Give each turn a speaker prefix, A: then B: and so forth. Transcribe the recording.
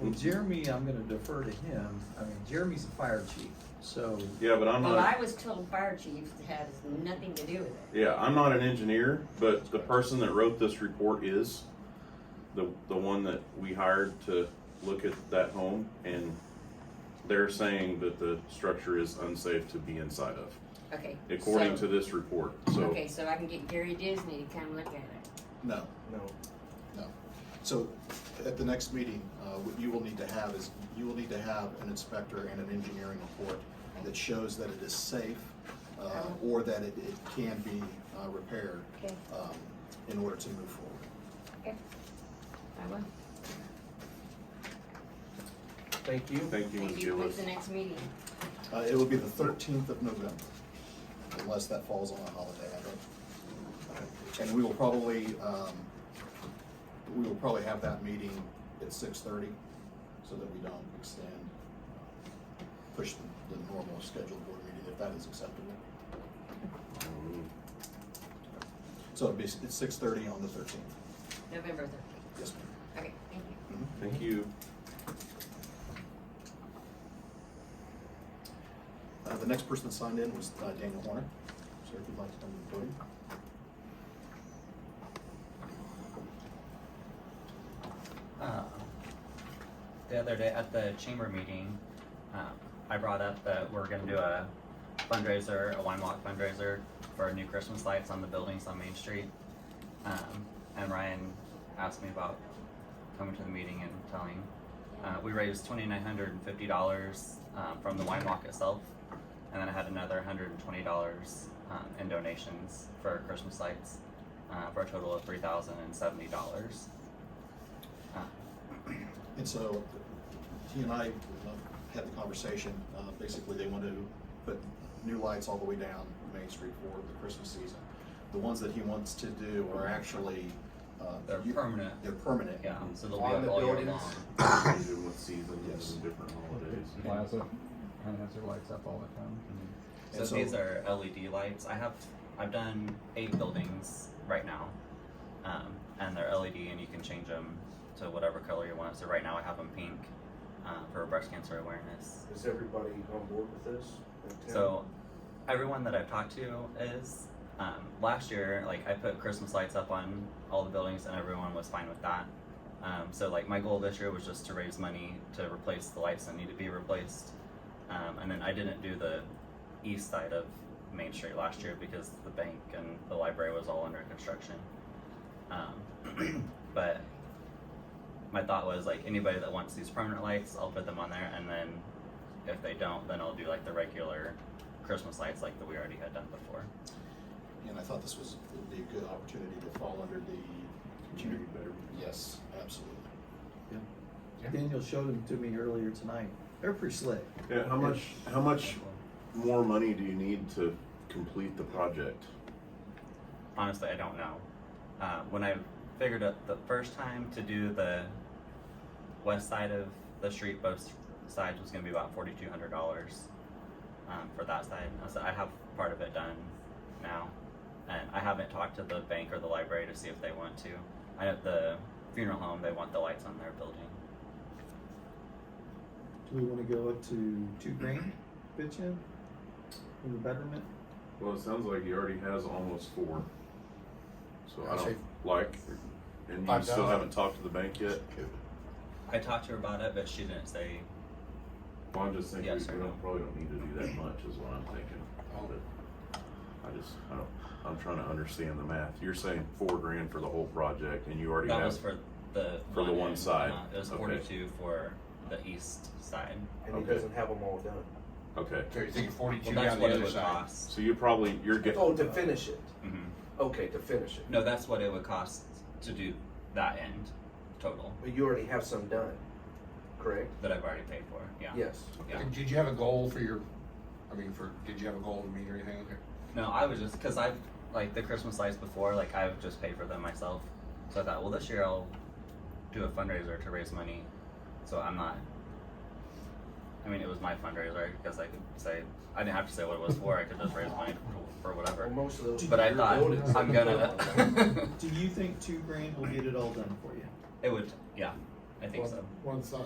A: Well, Jeremy, I'm gonna defer to him. I mean, Jeremy's the fire chief, so,
B: Yeah, but I'm
C: Well, I
B: not,
C: was told fire chief has nothing to do with it.
B: yeah, I'm not an engineer, but the person that wrote this report is the, the one that we hired to look at that home and they're saying that the structure is unsafe to be inside of,
C: Okay.
B: according
C: so-
B: to this report, so.
C: Okay, so I can get Gary Disney to come look at it.
D: No,
E: No.
D: no. So at the next meeting, uh, what you will need to have is, you will need to have an inspector and an engineering report that shows that it is safe uh, or that it it can be uh, repaired
C: Okay.
D: um, in order to move forward.
C: I will.
A: thank you.
B: Thank you, Ms.
C: Thank you. When's
B: Gillis.
C: the next meeting?
D: Uh, It will be the thirteenth of November, unless that falls on a holiday, I don't. And we will probably, um, we will probably have that meeting at six thirty, so that we don't extend, uh, push the, the normal scheduled board meeting, if that is acceptable.
B: um,
D: So it'll be, s- it's six thirty on the thirteenth,
C: November thirteenth.
D: yes, ma'am. Mm-hmm.
C: Okay, thank you.
B: Thank you.
D: Uh, the next person that signed in was uh, Daniel Horner, so if you'd like to come to the podium.
F: Uh, the other day at the chamber meeting, uh, I brought up that we're gonna do a fundraiser, a wine walk fundraiser for new Christmas lights on the buildings on Main Street. Um, and Ryan asked me about coming to the meeting and telling. Uh, we raised twenty nine hundred and fifty dollars um, from the wine walk itself, and then I had another hundred and twenty dollars um, in donations for Christmas lights, uh, for a total of three thousand and seventy dollars.
D: And so he and I uh, had the conversation, uh, basically they want to put new lights all the way down Main Street for the Christmas season. The ones that he wants to do are actually, uh.
F: They're
D: you-
F: permanent.
D: They're permanent.
F: Yeah, so they'll
E: On
F: be
E: the
F: up all year
E: buildings.
F: long.
B: Season with seasons
D: Yes.
B: and different holidays.
G: Plaza kind of has their lights up all the time.
F: So,
D: And so-
F: these are LED lights. I have I've done eight buildings right now, um, and they're LED, and you can change them to whatever color you want. So right now I have them pink uh, for breast cancer awareness.
E: Is everybody on board with this?
F: So everyone that I've talked to is um, last year like I put Christmas lights up on all the buildings, and everyone was fine with that. Um, so like my goal this year was just to raise money to replace the lights that need to be replaced, um, and then I didn't do the east side of Main Street last year because the bank and the library was all under construction. Um, but my thought was like anybody that wants these permanent lights, I'll put them on there, and then if they don't, then I'll do like the regular Christmas lights like that we already had done before.
D: And I thought this was, would be a good opportunity to fall under the.
B: Community betterment.
D: Yes, absolutely.
A: Daniel showed them to me earlier tonight. They're pretty slick.
B: Yeah, how much, how much more money do you need to complete the project?
F: Honestly, I don't know. Uh, when I figured out the first time to do the west side of the street, both sides was going to be about forty two hundred dollars um, for that side. I said I have part of it done now, and I haven't talked to the bank or the library to see if they want to. I know the funeral home; they want the lights on their building.
A: Do we wanna go up to two grand, pitch in? For the betterment?
B: Well, it sounds like he already has almost four. So I
H: I'd say
B: don't like, and you
H: five
B: still
H: thousand.
B: haven't talked to the bank yet?
F: I talked to her about it, but she didn't say
B: Well, I'm just thinking we
F: Yes Oh. or
B: we
F: no?
B: don't, probably don't need to do that much is what I'm thinking. But I just, I don't, I'm trying to understand the math. You're saying four grand for the whole project and you already
F: That
B: have,
F: was for the
B: For the one
F: end,
B: side.
F: uh, it was
B: Okay.
F: forty-two for the east side.
E: And he
B: Okay.
E: doesn't have them all done.
B: okay.
H: So you think
F: Well,
H: forty-two
F: that's
H: down the
F: what it
H: other
F: would
H: side?
F: cost.
B: So you probably, you're getting.
E: Oh, to finish it.
F: hmm
B: Mm-hmm.
E: Okay, to finish it.
F: No, that's what it would cost to do that end total
E: But you already have some done, correct?
F: that I've already paid for. Yeah.
E: Yes.
F: Yeah.
H: And did you have a goal for your, I mean, for, did you have a goal to meet or anything? Okay.
F: No, I was just because I've like the Christmas lights before. Like I've just paid for them myself. So I thought, well, this year I'll do a fundraiser to raise money. So I'm not. I mean, it was my fundraiser because I could say I didn't have to say what it was for. I could just raise money for, for
E: Well,
F: whatever.
E: most of those.
F: But I
E: are
F: thought
E: voted, so
F: I'm
E: they're done.
F: gonna.
A: Do you think two grand will get it all done for you?
F: It would, yeah, I think so.
H: One side.